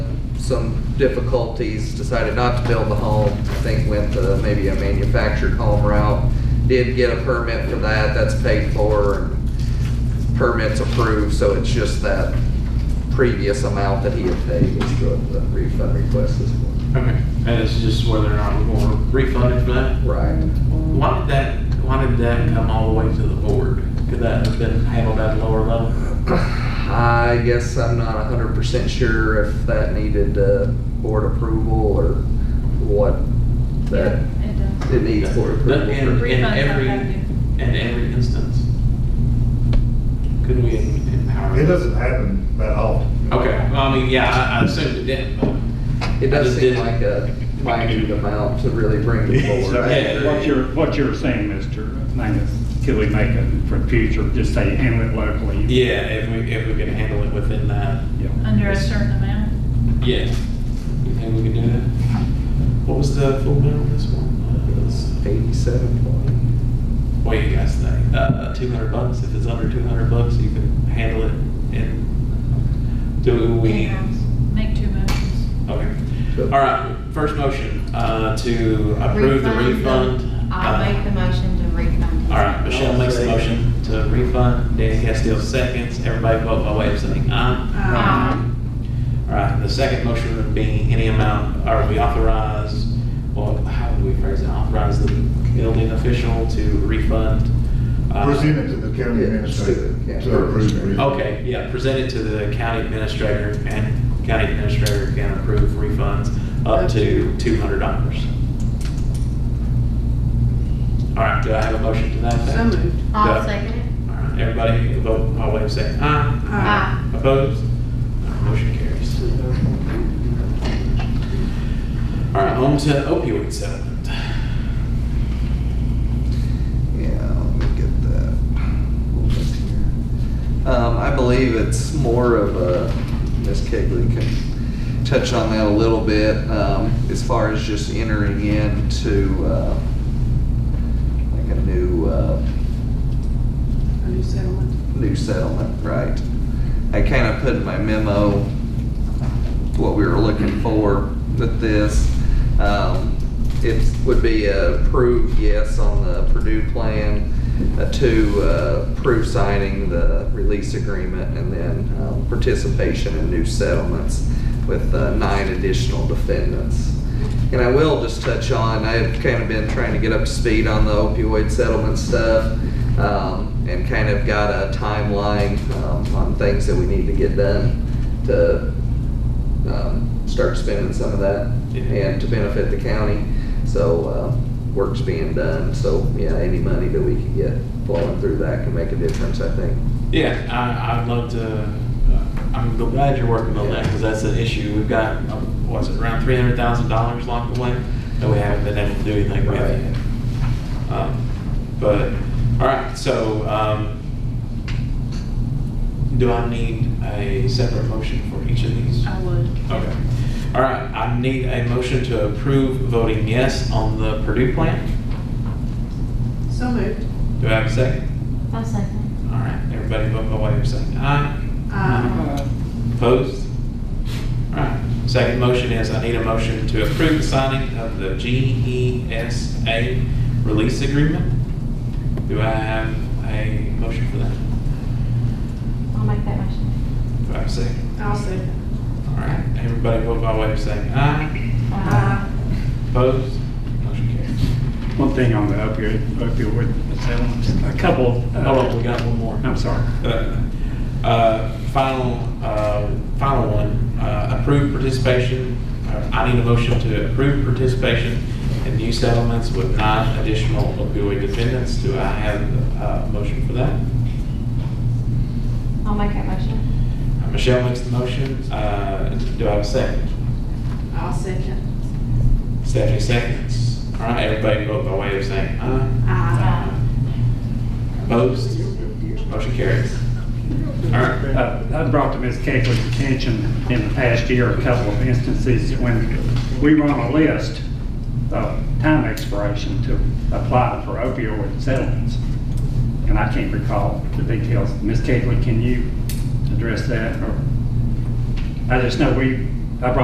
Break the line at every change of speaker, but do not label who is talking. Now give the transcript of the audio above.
some difficulties, decided not to build the home. Things went to maybe a manufactured home route. Did get a permit for that, that's paid for, and permits approved, so it's just that previous amount that he had paid is what the refund request is for.
Okay, and it's just whether or not we're going to refund it for that?
Right.
Why did that, why did that come all the way to the board? Could that have been handled at a lower level?
I guess I'm not hundred percent sure if that needed, uh, board approval or what that,
It
it needs board
But
approval.
in,
for-
in
Refunds
every,
are happening.
in every instance? Could we empower?
It doesn't happen that often.
Okay, well, I mean, yeah, I, I assumed it didn't, but,
It
I
does
just
seem
didn't-
like a minute amount to really bring the board.
Sorry.
So what you're, what you're saying, Mr. Mangus, could we make it for future, just say handle it locally?
yeah, if we, if we could handle it within that,
Yeah.
Under a certain amount.
yeah. You think we could do that? What was the full bill on this one? Uh, it was-
Eighty-seven point.
What do you guys think? Uh, two hundred bucks, if it's under two hundred bucks, you can handle it and do what we need.
Make two motions.
Okay. All right, first motion, uh, to approve the
Refund
refund. Uh,
I'll make the motion to refund.
All right, Michelle makes the motion to refund, Dan Castile seconds, everybody vote by way of saying aye.
Aye.
All right, the second motion would be any amount, or we authorize, well, how would we phrase it? Authorize the building official to refund. uh,
Present it to the county
Yeah,
administrator
yeah.
to approve. and refund.
Okay, yeah, present it to the county administrator, and county administrator can approve refunds up to two hundred dollars. All right, do I have a motion to that effect?
So moved.
I'll
Yeah.
second it.
All right, everybody vote by way of saying aye.
Aye.
Opposed? All right, Motion carries. All right, on to opioid settlement.
Yeah, let me get that. Hold this here. Um, I believe it's more of a, Ms. Kegley can touch on that a little bit, um, as far as just entering into, uh, like a new, uh,
A new settlement.
new settlement, right? I kind of put in my memo what we were looking for with this. Um, It would be a approve yes on the Purdue plan, a two, uh, approve signing the release agreement, and then um, participation in new settlements with uh, nine additional defendants. And I will just touch on, I've kind of been trying to get up to speed on the opioid settlement stuff um, and kind of got a timeline um, on things that we need to get done to um, start spending some of that
Yeah.
and to benefit the county. So uh, work's being done, so yeah, any money that we can get flowing through that can make a difference, I think.
Yeah, I, I'd love to, uh, I'm glad you're working on that, because that's an issue. We've got, uh, what's it, around three hundred thousand dollars locked away, that we haven't been able to do anything with
Right.
yet. Um, But, all right, so, um, do I need a separate motion for each of these?
I would.
Okay. All right, I need a motion to approve voting yes on the Purdue plan.
So moved.
Do I have a second?
I'll second
All right, everybody vote by way of saying aye.
Aye.
Opposed? All right, second motion is I need a motion to approve the signing of the GESA release agreement. Do I have a motion for that?
it. I'll make that motion.
Do I have a second?
I'll second.
All right, everybody vote by way of saying aye.
Uh,
Opposed? Motion carries.
One thing on the opioid, opioid settlement, a couple. uh,
Hold on, Oh, we got one more.
I'm sorry.
Uh, Final, uh, final one, uh, approve participation, uh, I need a motion to approve participation in new settlements with nine additional opioid defendants. Do I have uh, a motion for that?
I'll make that motion.
Uh, Michelle makes the motion. Uh, Do I have a second?
I'll second.
Stephanie seconds. All right, everybody vote by way of saying aye.
Aye.
Opposed? Motion carries. All right.
Uh, I brought to Ms. Kegley's attention in the past year, a couple of instances when we run a list of time expiration to apply for opioid settlements. And I can't recall the details. Ms. Kegley, can you address that? Or I just know we